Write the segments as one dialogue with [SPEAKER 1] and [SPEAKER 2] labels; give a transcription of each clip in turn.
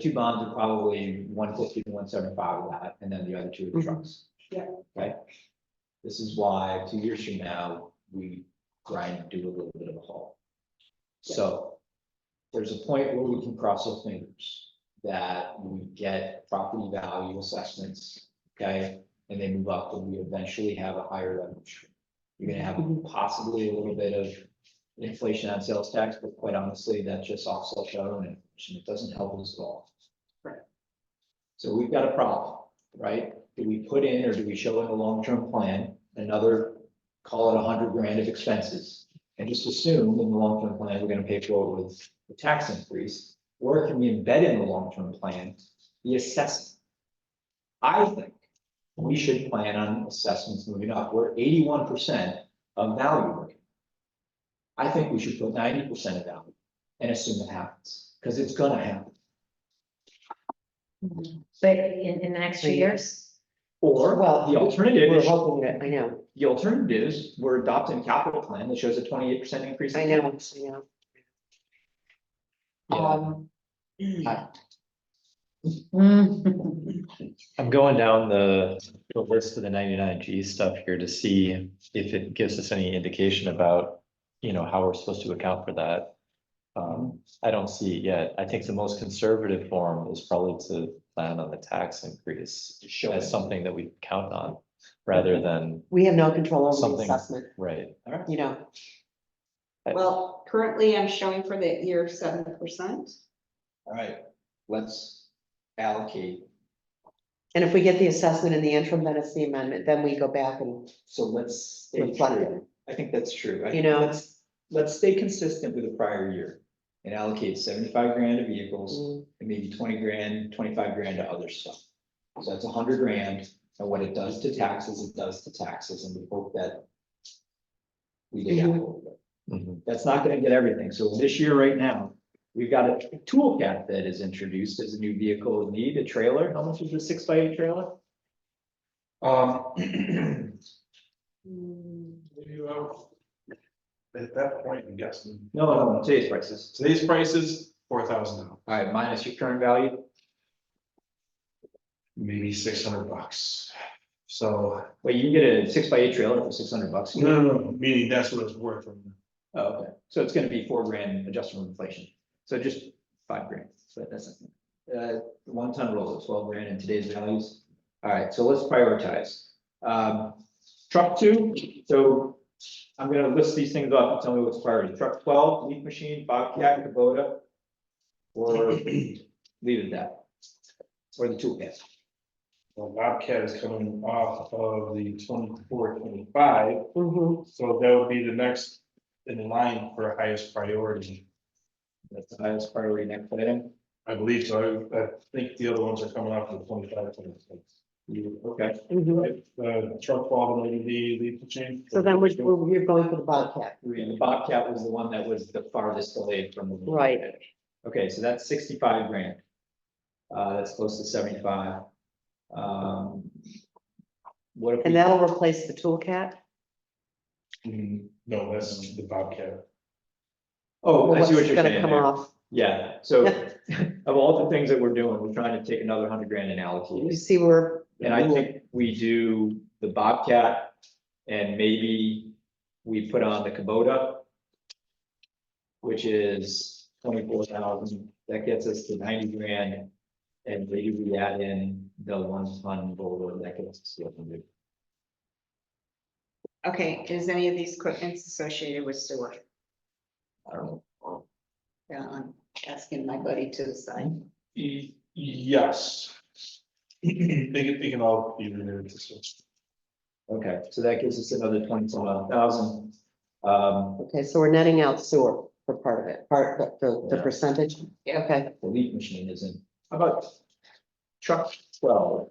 [SPEAKER 1] two bombs are probably one fifty to one seventy-five of that, and then the other two are
[SPEAKER 2] Mhm.
[SPEAKER 1] trucks.
[SPEAKER 3] Yeah.
[SPEAKER 1] Right? This is why two years from now, we grind, do a little bit of a haul. So there's a point where we can cross our fingers that we get property value assessments, okay? And they move up, and we eventually have a higher revenue stream. You're gonna have possibly a little bit of inflation on sales tax, but quite honestly, that's just offsets our own inflation. It doesn't help us at all.
[SPEAKER 3] Right.
[SPEAKER 1] So we've got a problem, right? Do we put in or do we show in the long-term plan another, call it a hundred grand of expenses? And just assume in the long-term plan, we're gonna pay for it with the tax increase, or can we embed in the long-term plan the assessment? I think we should plan on assessments moving up. We're eighty-one percent of value right I think we should put ninety percent of value and assume it happens, because it's gonna happen.
[SPEAKER 4] But in, in the next few
[SPEAKER 2] Three
[SPEAKER 4] years,
[SPEAKER 1] Or
[SPEAKER 2] Well,
[SPEAKER 1] the alternative,
[SPEAKER 2] We're
[SPEAKER 1] is-
[SPEAKER 2] hoping that, I know,
[SPEAKER 1] the alternative is we're adopting a capital plan that shows a twenty-eight percent increase. in
[SPEAKER 2] I know, I know.
[SPEAKER 1] Yeah.
[SPEAKER 2] Um,
[SPEAKER 4] mm.
[SPEAKER 5] I'm going down the the list of the ninety-nine G stuff here to see if it gives us any indication about, you know, how we're supposed to account for that. Um, I don't see it yet. I think the most conservative form is probably to plan on the tax increase
[SPEAKER 1] Just show it.
[SPEAKER 5] as something that we count on, rather than,
[SPEAKER 2] we have no control over the
[SPEAKER 5] Something.
[SPEAKER 2] assessment,
[SPEAKER 5] right,
[SPEAKER 2] you know,
[SPEAKER 3] Well, currently I'm showing for the year seven percent.
[SPEAKER 1] All right, let's allocate,
[SPEAKER 2] and if we get the assessment in the interim, then it's the amendment, then we go back and
[SPEAKER 1] so let's. stay
[SPEAKER 2] reflect
[SPEAKER 1] true.
[SPEAKER 2] it,
[SPEAKER 1] I think that's true. I
[SPEAKER 2] you
[SPEAKER 1] think
[SPEAKER 2] know,
[SPEAKER 1] let's-
[SPEAKER 2] it's.
[SPEAKER 1] Let's stay consistent with the prior year and allocate seventy-five grand to vehicles.
[SPEAKER 2] mm,
[SPEAKER 1] and maybe twenty grand, twenty-five grand to other stuff. So that's hundred grand, and what it does to taxes, it does to taxes, and we hope that. We dig out a
[SPEAKER 2] Mm-hmm.
[SPEAKER 1] little bit.
[SPEAKER 5] Mhm.
[SPEAKER 1] That's not gonna get everything, so this year right now, we've got a toolcat that is introduced as a new vehicle of need, a trailer, how much is a six by eight trailer? Um.
[SPEAKER 6] You know, At that point, I'm guessing,
[SPEAKER 1] No, no, no, today's prices,
[SPEAKER 6] today's price is four thousand now,
[SPEAKER 1] alright, minus your current value,
[SPEAKER 6] maybe six hundred bucks. So,
[SPEAKER 1] wait, you can get a six by eight trailer for six hundred bucks.
[SPEAKER 6] no, no, no, meaning that's what it's worth.
[SPEAKER 1] Oh, okay, so it's gonna be four grand adjusted for inflation, so just five grand, so that's. Uh, one ton rolls at twelve grand in today's values, alright, so let's prioritize. Um, truck two, so I'm gonna list these things up and tell me what's priority, truck twelve, leaf machine, Bobcat, Kubota. Or leave it at that. Or the toolkit,
[SPEAKER 6] Well, Bobcat is coming off of the 24, 25,
[SPEAKER 2] mhm.
[SPEAKER 6] so that would be the next in line for highest priority.
[SPEAKER 1] that's the highest priority next item,
[SPEAKER 6] I believe so, I, I think the other ones are coming off of the 25, 26.
[SPEAKER 1] You- okay,
[SPEAKER 2] mhm.
[SPEAKER 6] Right, The Uh, truck fall, the lady, the leaf change.
[SPEAKER 2] So then we're, we're we're going for the Bobcat,
[SPEAKER 1] the Bobcat was the one that was the farthest delayed from. the-
[SPEAKER 2] right,
[SPEAKER 1] Okay, so that's sixty-five grand. Uh, that's close to seventy-five. Um. What if?
[SPEAKER 2] and
[SPEAKER 1] we-
[SPEAKER 2] that'll replace the Toolcat,
[SPEAKER 6] Mm, No, that's the Bobcat.
[SPEAKER 1] Oh, I
[SPEAKER 2] what's
[SPEAKER 1] see what you're
[SPEAKER 2] gonna
[SPEAKER 1] saying
[SPEAKER 2] come
[SPEAKER 1] there.
[SPEAKER 2] off,
[SPEAKER 1] Yeah, so of all the things that we're doing, we're trying to take another hundred grand and
[SPEAKER 2] you
[SPEAKER 1] allocate. it.
[SPEAKER 2] see where.
[SPEAKER 1] And I think we do the Bobcat and maybe we put on the Kubota. Which is twenty-four thousand, that gets us to ninety grand. And maybe we add in the one-ton Volvo, that gets us to a hundred.
[SPEAKER 3] Okay, is any of these equipments associated with sewer?
[SPEAKER 1] I don't know.
[SPEAKER 3] Yeah, I'm asking my buddy to the side.
[SPEAKER 6] Y- Yes. They can, they can all be renewed this year.
[SPEAKER 1] Okay, so that gives us another twenty-some odd thousand. Um,
[SPEAKER 2] Okay, so we're netting out sewer for part of it, part, the- the, the
[SPEAKER 1] Yeah.
[SPEAKER 2] percentage,
[SPEAKER 3] Yeah.
[SPEAKER 2] okay.
[SPEAKER 1] the leaf machine isn't, how about truck twelve?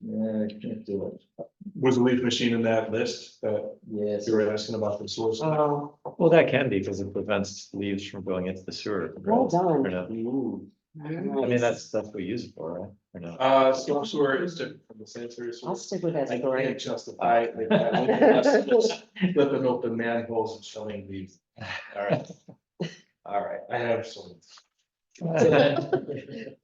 [SPEAKER 1] Yeah, I can't do it.
[SPEAKER 6] Was the leaf machine in that list that
[SPEAKER 1] Yes,
[SPEAKER 6] you were asking about the source?
[SPEAKER 2] Oh,
[SPEAKER 5] Well, that can be, because it prevents leaves from going into the sewer. right?
[SPEAKER 2] well done.
[SPEAKER 5] Or not. I mean, that's, that's what we use it for, right? Or not?
[SPEAKER 6] Uh, storm sewer is different from the sanitary
[SPEAKER 2] I'll
[SPEAKER 6] sewer.
[SPEAKER 2] stick with that
[SPEAKER 6] I
[SPEAKER 2] story.
[SPEAKER 6] can't justify it like that. Unless it's Flipping open manholes and showing leaves. All right,
[SPEAKER 1] all right.
[SPEAKER 6] I have some.
[SPEAKER 5] So then-